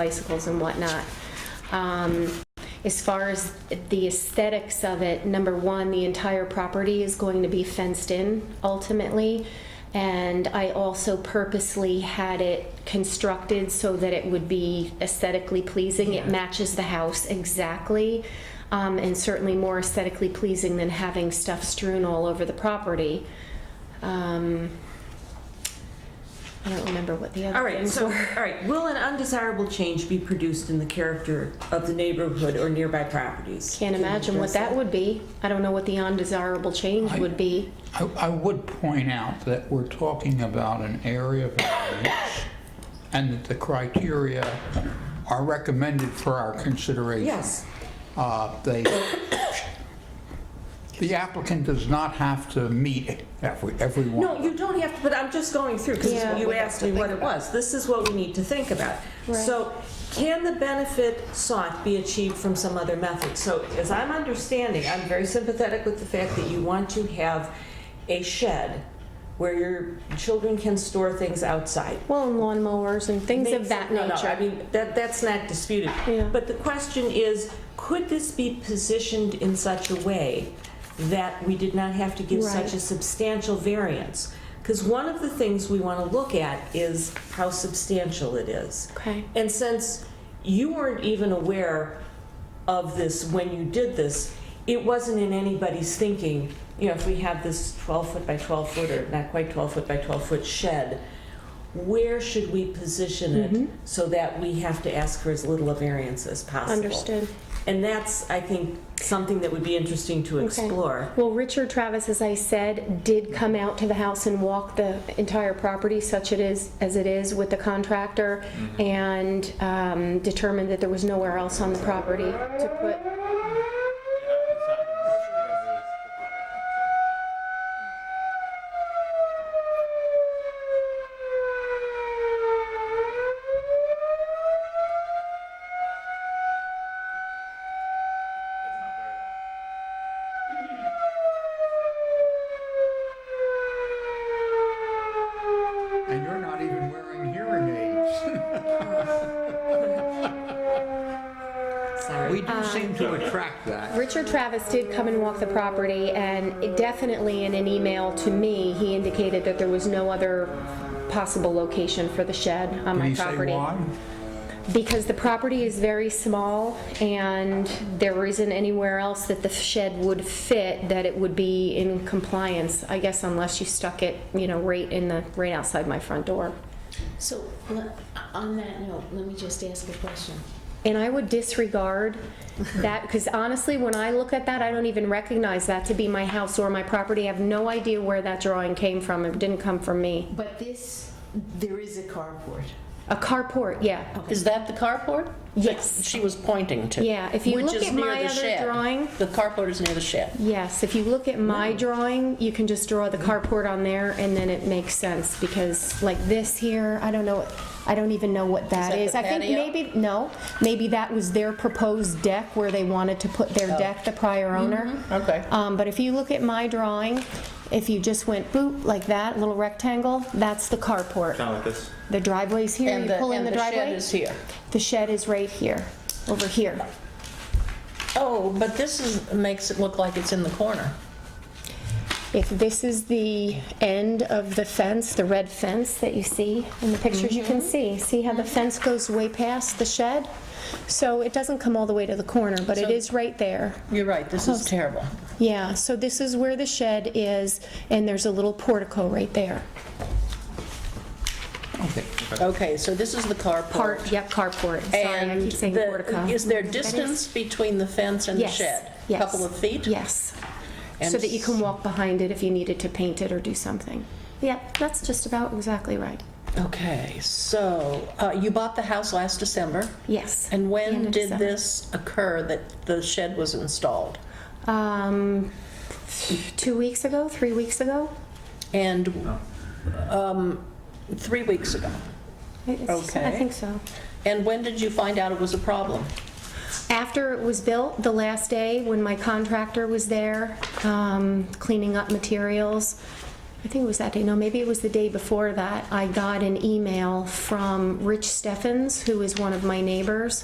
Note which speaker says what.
Speaker 1: bicycles and whatnot. Um, As far as the aesthetics of it, number one, the entire property is going to be fenced in ultimately. And I also purposely had it constructed so that it would be aesthetically pleasing. It matches the house exactly, um, and certainly more aesthetically pleasing than having stuff strewn all over the property. Um, I don't remember what the
Speaker 2: All
Speaker 1: other
Speaker 2: right,
Speaker 1: things
Speaker 2: so,
Speaker 1: were.
Speaker 2: all right, will an undesirable change be produced in the character of the neighborhood or nearby properties?
Speaker 1: Can't imagine what that would be. I don't know what the undesirable change would be.
Speaker 3: I, I would point out that we're talking about an area variance and that the criteria are recommended for our consideration.
Speaker 2: Yes.
Speaker 3: Uh, They, the applicant does not have to meet every, everyone.
Speaker 2: No, you don't have to, but I'm just going through, because
Speaker 1: Yeah.
Speaker 2: you asked me what it was. This is what we need to think about. So, can the benefit sought be achieved from some other method? So, as I'm understanding, I'm very sympathetic with the fact that you want to have a shed where your children can store things outside.
Speaker 1: Well, and lawnmowers and things of
Speaker 2: Makes-
Speaker 1: that
Speaker 2: no, No, I
Speaker 1: nature.
Speaker 2: mean, that, that's not disputed.
Speaker 1: Yeah.
Speaker 2: But the question is, could this be positioned in such a way that we did not have to give such
Speaker 1: Right.
Speaker 2: a substantial variance? Because one of the things we want to look at is how substantial it is.
Speaker 1: Okay.
Speaker 2: And since you weren't even aware of this when you did this, it wasn't in anybody's thinking, you know, if we have this 12 foot by 12 foot or not quite 12 foot by 12 foot shed, where should we position it
Speaker 1: Mm-hmm.
Speaker 2: so that we have to ask for as little a variance as possible?
Speaker 1: Understood.
Speaker 2: And that's, I think, something that would be interesting to
Speaker 1: Okay.
Speaker 2: explore.
Speaker 1: Well, Richard Travis, as I said, did come out to the house and walk the entire property such it is, as it is with the contractor and um, determined that there was nowhere else on the property to put.
Speaker 3: And you're not even wearing hearing aids.
Speaker 2: Sorry. Um,
Speaker 3: We do seem to attract that.
Speaker 1: Richard Travis did come and walk the property, and it definitely in an email to me, he indicated that there was no other possible location for the shed on
Speaker 3: Did
Speaker 1: my
Speaker 3: he say
Speaker 1: property.
Speaker 3: why?
Speaker 1: Because the property is very small and there isn't anywhere else that the shed would fit that it would be in compliance, I guess unless you stuck it, you know, right in the, right outside my front door.
Speaker 4: So, le- on that note, let me just ask a question.
Speaker 1: And I would disregard that, because honestly, when I look at that, I don't even recognize that to be my house or my property. I have no idea where that drawing came from. It didn't come from me.
Speaker 4: But this, there is a carport.
Speaker 1: A carport, yeah.
Speaker 5: Is that the carport?
Speaker 1: Yes.
Speaker 5: That She was pointing to.
Speaker 1: Yeah, if you
Speaker 5: Which
Speaker 1: look
Speaker 5: is
Speaker 1: at
Speaker 5: near
Speaker 1: my
Speaker 5: the
Speaker 1: other
Speaker 5: shed.
Speaker 1: drawing-
Speaker 5: The carport is near the shed.
Speaker 1: Yes, if you look at my drawing, you can just draw the
Speaker 5: Mm-hmm.
Speaker 1: carport on there, and then it makes sense, because like this here, I don't know, I don't even know what that
Speaker 5: that
Speaker 1: is.
Speaker 5: the
Speaker 1: I think
Speaker 5: patio?
Speaker 1: maybe, no, maybe that was their proposed deck where they wanted to put their deck, the prior owner.
Speaker 5: Oh. Mm-hmm. okay.
Speaker 1: Um, But if you look at my drawing, if you just went boop, like that, little rectangle, that's the carport.
Speaker 6: Kind of like this.
Speaker 1: The driveway's here,
Speaker 5: Oh. And
Speaker 1: you
Speaker 5: the,
Speaker 1: pull in
Speaker 5: and
Speaker 1: the
Speaker 5: the shed
Speaker 1: driveway.
Speaker 5: is here.
Speaker 1: The shed is right here, over here.
Speaker 5: Oh, but this is, makes it look like it's in the corner.
Speaker 1: If this is the end of the fence, the red fence that you see in the pictures, you can see, see how the fence goes way past the shed? So it doesn't come all the way to the corner, but it
Speaker 5: So-
Speaker 1: is right there.
Speaker 5: You're right, this
Speaker 1: Oh,
Speaker 5: is terrible.
Speaker 1: Yeah, so this is where the shed is, and there's a little portico right there.
Speaker 3: Okay.
Speaker 5: Okay, so this is the carport.
Speaker 1: Part, yep, carport. Sorry, I
Speaker 5: And
Speaker 1: keep saying
Speaker 5: the-
Speaker 1: portico.
Speaker 5: Is there distance between the fence and the
Speaker 1: Yes,
Speaker 5: shed?
Speaker 1: yes.
Speaker 5: Couple of feet?
Speaker 1: Yes.
Speaker 5: And
Speaker 1: So that you can walk behind it if you needed to paint it or do something. Yeah, that's just about exactly right.
Speaker 5: Okay, so uh, you bought the house last December,
Speaker 1: Yes. The
Speaker 5: and
Speaker 1: end
Speaker 5: when
Speaker 1: of
Speaker 5: did
Speaker 1: December.
Speaker 5: this occur that the shed was installed?
Speaker 1: Um, two weeks ago, three weeks ago.
Speaker 5: And um, three weeks ago.
Speaker 1: It's- I
Speaker 5: Okay.
Speaker 1: think so.
Speaker 5: And when did you find out it was a problem?
Speaker 1: After it was built, the last day when my contractor was there, um, cleaning up materials, I think it was that day, no, maybe it was the day before that, I got an email from Rich Steffens, who is one of my neighbors,